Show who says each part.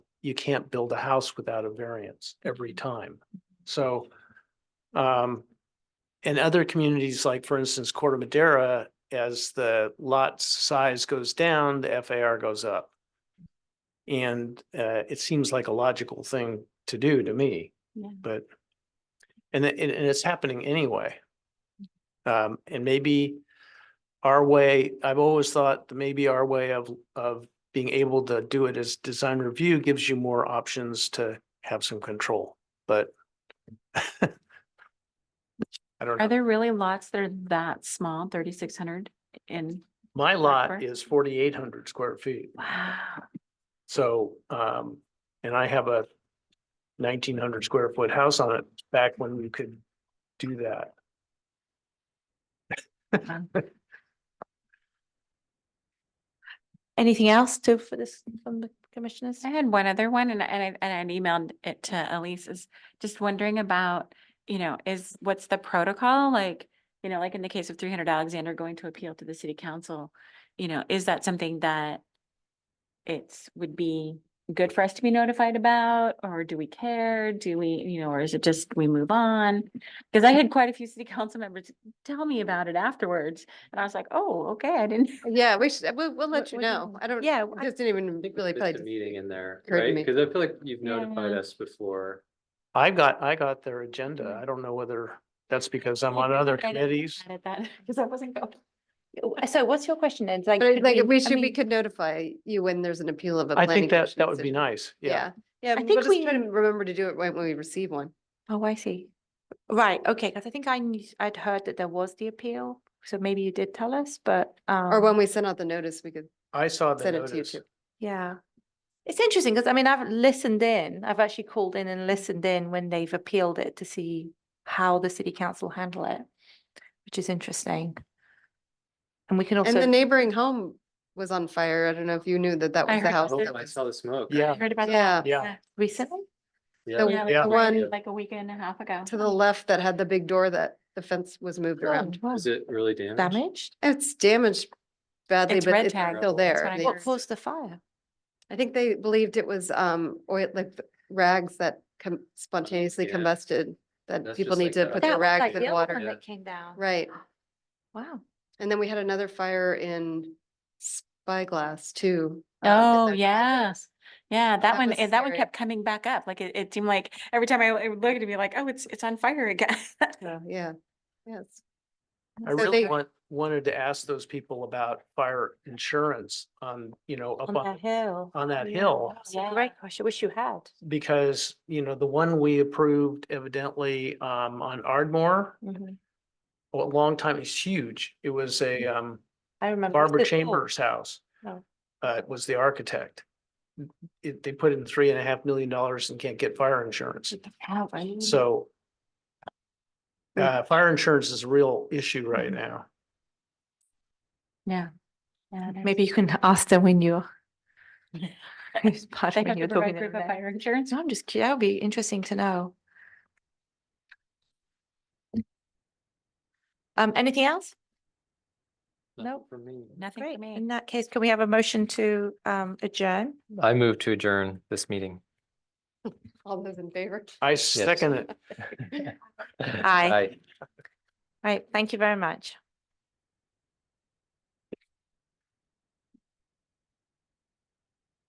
Speaker 1: you can't build a house without a variance every time. So, um, in other communities, like for instance, Corder Madera, as the lot size goes down, the FAR goes up. And, uh, it seems like a logical thing to do to me,
Speaker 2: Yeah.
Speaker 1: but, and, it- and it's happening anyway. Um, and maybe our way, I've always thought that maybe our way of, of being able to do it as design review gives you more options to have some control, but I don't know.
Speaker 2: Are there really lots that are that small, thirty-six hundred in,
Speaker 1: My lot
Speaker 2: Backward.
Speaker 1: is forty-eight hundred square feet,
Speaker 2: wow,
Speaker 1: so, um, and I have a nineteen hundred square foot house on it back when we could do that.
Speaker 3: Anything else to, for this, from the commissioners?
Speaker 2: I had one other one and, I- and I, and I emailed it to Elise is just wondering about, you know, is, what's the protocol? Like, you know, like in the case of three hundred Alexander going to appeal to the city council, you know, is that something that it's, would be good for us to be notified about, or do we care? Do we, you know, or is it just we move on? Because I had quite a few city council members tell me about it afterwards, and I was like, oh, okay, I didn't.
Speaker 4: Yeah, we should, we'll, we'll let
Speaker 2: What-
Speaker 4: you
Speaker 2: what do you
Speaker 4: know.
Speaker 2: think?
Speaker 4: I don't,
Speaker 2: Yeah, I-
Speaker 4: just didn't even really
Speaker 5: It's a
Speaker 4: probably.
Speaker 5: meeting in there,
Speaker 4: occurred to
Speaker 5: right?
Speaker 4: me.
Speaker 5: Because I feel like you've notified
Speaker 2: Yeah.
Speaker 5: us before. Mm-hmm.
Speaker 1: I got, I got their agenda. I don't know whether that's because I'm on other committees.
Speaker 2: At that, because I wasn't going.
Speaker 3: So what's your question then? It's Like,
Speaker 4: But it-
Speaker 3: could
Speaker 4: like, we
Speaker 3: I
Speaker 4: should, we
Speaker 3: mean,
Speaker 4: could notify you when there's an appeal of a.
Speaker 1: I
Speaker 4: planning
Speaker 1: think that,
Speaker 4: commission
Speaker 1: that would be
Speaker 4: decision.
Speaker 1: nice. Yeah.
Speaker 4: Yeah, yeah,
Speaker 3: think
Speaker 4: we'll just
Speaker 3: we-
Speaker 4: try to remember to do it when when we receive one.
Speaker 3: Oh, I see. Right, okay, because I think I knew, I'd heard that there was the appeal, so maybe you did tell us, but.
Speaker 4: Or
Speaker 3: um,
Speaker 4: when we send out the notice, we could,
Speaker 1: I saw the
Speaker 4: Send it to you
Speaker 1: notice.
Speaker 4: too.
Speaker 3: Yeah. It's interesting because I mean, I've listened in, I've actually called in and listened in when they've appealed it to see how the city council handle it, which is interesting. And we can
Speaker 4: and the
Speaker 3: also,
Speaker 4: neighboring home was on fire. I don't know if you knew that that
Speaker 2: I
Speaker 4: was the
Speaker 2: heard
Speaker 4: house.
Speaker 2: about
Speaker 4: that
Speaker 5: Oh, I
Speaker 4: was-
Speaker 5: saw the smoke.
Speaker 1: Yeah,
Speaker 2: Heard about that.
Speaker 4: Yeah,
Speaker 1: yeah.
Speaker 3: recently,
Speaker 5: Yeah.
Speaker 4: The-
Speaker 2: Yeah,
Speaker 1: Yeah.
Speaker 2: like
Speaker 4: One-
Speaker 2: one, like a week and a half ago.
Speaker 4: to the
Speaker 3: Hmm.
Speaker 4: left that had the big door that the fence was moved around.
Speaker 3: Oh,
Speaker 5: Is it really damaged?
Speaker 3: damaged?
Speaker 4: It's damaged badly,
Speaker 2: It's
Speaker 4: but
Speaker 2: red
Speaker 4: it's
Speaker 2: tagged.
Speaker 4: still
Speaker 2: That's
Speaker 4: there.
Speaker 2: what I
Speaker 4: They-
Speaker 2: heard.
Speaker 3: What
Speaker 2: Yes.
Speaker 3: caused the fire?
Speaker 4: I think they believed it was, um, oil, like the rags that com- spontaneously
Speaker 5: Yeah.
Speaker 4: combusted, that
Speaker 5: That's
Speaker 4: people
Speaker 5: just
Speaker 4: need
Speaker 5: like
Speaker 4: to
Speaker 5: that.
Speaker 4: put
Speaker 5: That
Speaker 4: their
Speaker 5: was
Speaker 4: rags
Speaker 5: like
Speaker 4: in
Speaker 5: the
Speaker 4: water.
Speaker 5: one. Yeah.
Speaker 3: That came down.
Speaker 4: Right.
Speaker 3: Wow.
Speaker 2: Oh,
Speaker 4: And then we had another fire in Spyglass too. uh, at
Speaker 2: Oh,
Speaker 4: the-
Speaker 2: yes. Yeah,
Speaker 4: That
Speaker 2: that one,
Speaker 4: was
Speaker 2: eh, that one
Speaker 4: scary.
Speaker 2: kept coming back up. Like it, it seemed like every time I it would look at me like, oh, it's, it's on fire again.
Speaker 4: Yeah, Yeah, yes.
Speaker 1: I
Speaker 4: So
Speaker 1: really
Speaker 4: they-
Speaker 1: want, wanted to ask those people about fire insurance on, you know, up
Speaker 3: On
Speaker 1: on,
Speaker 3: that hill.
Speaker 1: on that hill.
Speaker 3: That's a Great question. Wish you had.
Speaker 1: Because, you know, the one we approved evidently, um, on Ardmore,
Speaker 3: Mhm.
Speaker 1: a long time, it's huge. It was a, um,
Speaker 3: Mm-hmm. I remember. It's
Speaker 1: Barbara
Speaker 3: this hill.
Speaker 1: Chambers' house.
Speaker 3: Oh.
Speaker 1: Uh, was the architect. It, they put in three and a half million dollars and can't get fire insurance.
Speaker 3: Mm-hmm.
Speaker 1: So
Speaker 3: Mm.
Speaker 1: uh, fire insurance is a real issue right
Speaker 3: Mm-hmm.
Speaker 1: now.
Speaker 2: Yeah. Yeah, there's-
Speaker 3: Maybe you can ask them when you're. It's part
Speaker 2: They
Speaker 3: when
Speaker 2: have
Speaker 3: you're
Speaker 2: to provide
Speaker 3: talking to
Speaker 2: proof
Speaker 3: them
Speaker 2: of
Speaker 3: there.
Speaker 2: fire insurance.
Speaker 3: No, I'm just, cu- that would be interesting to know. Um, anything else?
Speaker 5: Nothing
Speaker 3: Nope.
Speaker 5: For me.
Speaker 2: Nothing
Speaker 3: Great.
Speaker 2: for
Speaker 3: In
Speaker 2: me.
Speaker 3: that case, can we have a motion to um adjourn?
Speaker 6: I move to adjourn this meeting.
Speaker 4: All those in favor?
Speaker 1: I second it.
Speaker 3: Aye. Right, thank you very much.